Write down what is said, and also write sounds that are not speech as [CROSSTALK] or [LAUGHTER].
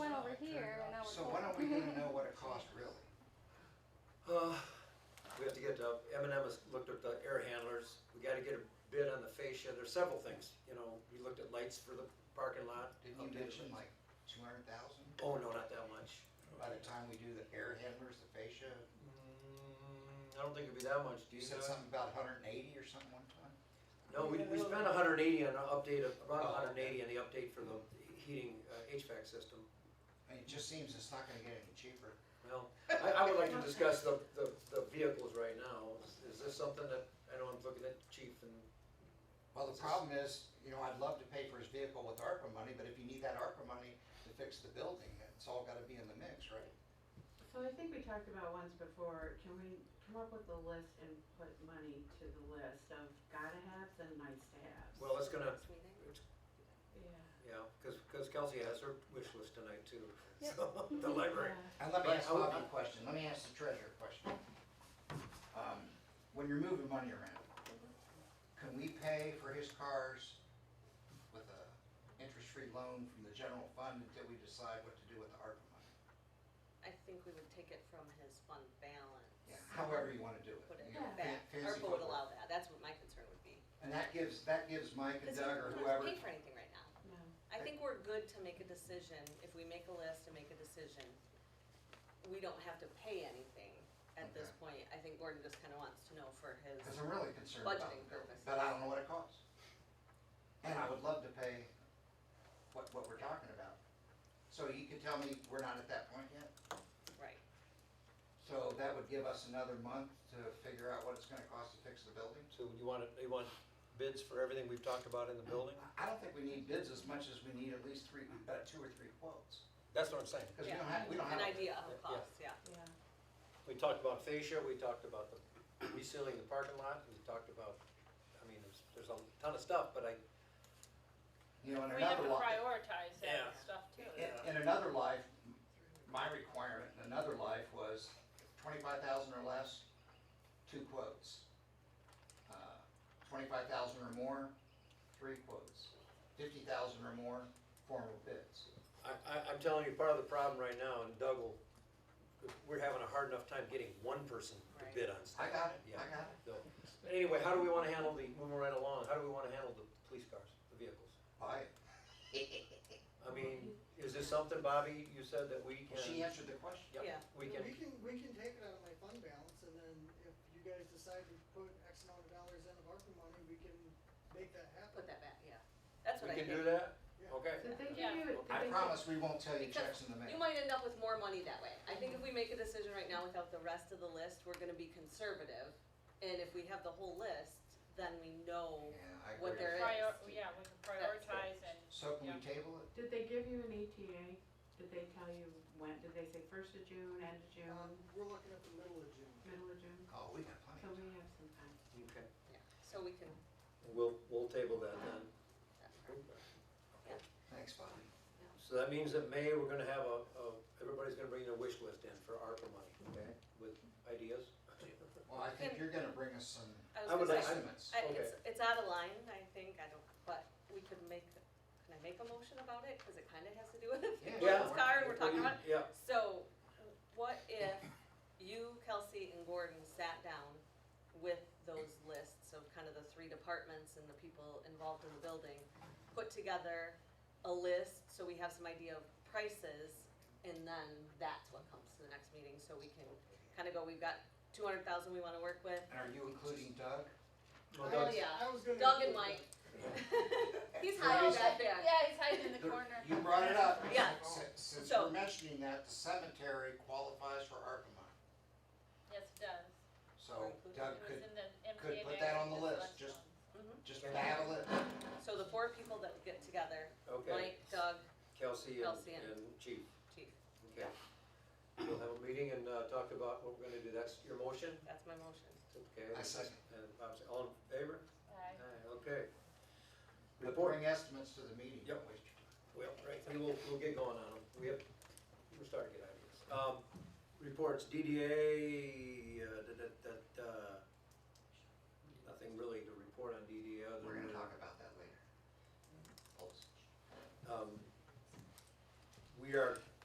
we [LAUGHS] gonna know what it cost really? Uh, We have to get, uh, M and M has looked at the air handlers, we gotta get a bid on the fascia, there's several things, you know, we looked at lights for the parking lot. Didn't you mention like two hundred thousand? Oh, no, not that much. By the time we do the air handlers, the fascia, Mm, I don't think it'd be that much, do you you? said Doug? something about hundred and eighty or something one time? No, we, we spent hundred and eighty on an update, of- about Oh, hundred and eighty okay. on the update for the heating uh, HVAC system. I mean, it just seems it's not gonna get any cheaper. Well, I, I would like to discuss the, the, the vehicles right now. Is- Is this something that, I know I'm looking at chief and, [LAUGHS] Well, the problem is, you know, I'd love to pay for his vehicle with ARPA money, but if you need that ARPA money to fix the building, it's all gotta be in the mix, right? So I think we talked about once before, can we come up with a list and put money to the list of gotta haves and nice to haves? well, it's gonna, Next meeting? Yeah. yeah, cause, 'cause Kelsey has her wish list tonight too. So, [LAUGHS] the library. Yeah. And let me But ask I would- Bobby a question, let me ask the treasurer a question. Um, When you're moving money around, can we pay for his cars with a interest-free loan from the general fund until we decide what to do with the ARPA money? I think we would take it from his fund balance. Yeah, However you want to do Put it. it you know, back, fan- fancy ARPA would football. allow that, that's what my concern would be. And that gives, that gives Mike and Because Doug or he whoever, doesn't pay for anything right now. No. I think we're good to make a decision, if we make a list and make a decision, we don't have to pay anything at this Okay. point. I think Gordon just kind of wants to know for his, because I'm really concerned about Budgeting the building, purposes. but I don't know what it costs. And I would love to pay what, what we're talking about. So you can tell me we're not at that point yet? right, So that would give us another month to figure out what it's gonna cost to fix the building? So you want, you want bids for everything we've talked about in the building? I- I don't think we need bids as much as we need at least three, uh, two or three quotes. That's what I'm saying. Because we Yeah. don't have, we don't have. an idea Yeah. of cost, yeah. Yeah. We talked about fascia, we talked about the resealing the parking lot, we talked about, I mean, there's, there's a ton of stuff, but I, You know, in We have another to life, prioritize Yeah. that stuff too. in in another life, my requirement in another life was twenty-five thousand or less, two quotes. Uh, Twenty-five thousand or more, three quotes. Fifty thousand or more, formal bids. I, I, I'm telling you, part of the problem right now, and Doug will, we're having a hard enough time getting one person to Right. bid on stuff. I got it, I Yeah. got it. So, Anyway, how do we wanna handle the, moving right along, how do we wanna handle the police cars, the vehicles? Buy Yeah. I mean, is this something, Bobby, you said that we it. She can, answered the question. yeah, Yeah. we Yeah, We can, can, we can take it out of my fund balance, and then if you guys decide to put X amount of dollars in of ARPA money, we can make that happen. Put that back, yeah. we That's what I can think. do that? Yeah. So Okay. they can do it. I they promise we won't tell you checks Because in the You mail. might end up with more money that way. I think if we make a decision right now without the rest of the list, we're gonna be conservative. And if we have the whole list, then we know Yeah, I what agree. there is. Prior, yeah, we can That's good. prioritize and, So can Yeah. we table it? Did they give you an ETA? Did they tell you when, did they say first of June, end of Um, June, we're looking at the middle of June. middle of June? Oh, we got plenty So of we time. have some time. Okay. Yeah, so we can, We'll, we'll table that then. that's Thanks, Bobby. So that means that May, we're gonna have a, a, everybody's gonna bring their wish list in for ARPA money, okay, with ideas? Well, I think Can- you're gonna bring us some I I would was like- gonna say, estimates. I- it's, it's out of line, I think, I don't, but we could make, can I make a motion about it? Cause it kinda has to do with Yeah. this car and we're talking about. Yeah, So, what if you, Kelsey, and Gordon sat down with those lists of kind of the three departments and the people involved in the building, put together a list so we have some idea of prices, and then that's what comes to the next meeting, so we can kind of go, we've got two hundred thousand we wanna work with. And are you including Doug? I Well, Oh, Doug, was- yeah. I was gonna Doug include and Mike. that. He's hiding back there. yeah, he's hiding in the corner. You brought it up. Yeah. Si- Since So- we're mentioning that, the cemetery qualifies for ARPA money. Yes, it does. So Doug It was could in the MTA. could put that on the magazine, list, this just- one. Mhm. just battle it. So the four people that would get together, Okay, Mike, Doug, Kelsey and, Kelsey and- and Chief, Chief, okay. We'll have a meeting and, uh, talk about what we're gonna do, that's your motion, that's my motion. okay? I second. And Bob's, all in favor? Aye. Aye, okay. We Report. bring estimates to the meeting. Yep. Well, right, we will, we'll get going on them. We have, we're starting to get ideas. Um, reports, DDA, uh, da, da, da, da. Nothing really to report on DDA other than. We're gonna talk about that later. Polls. um, We are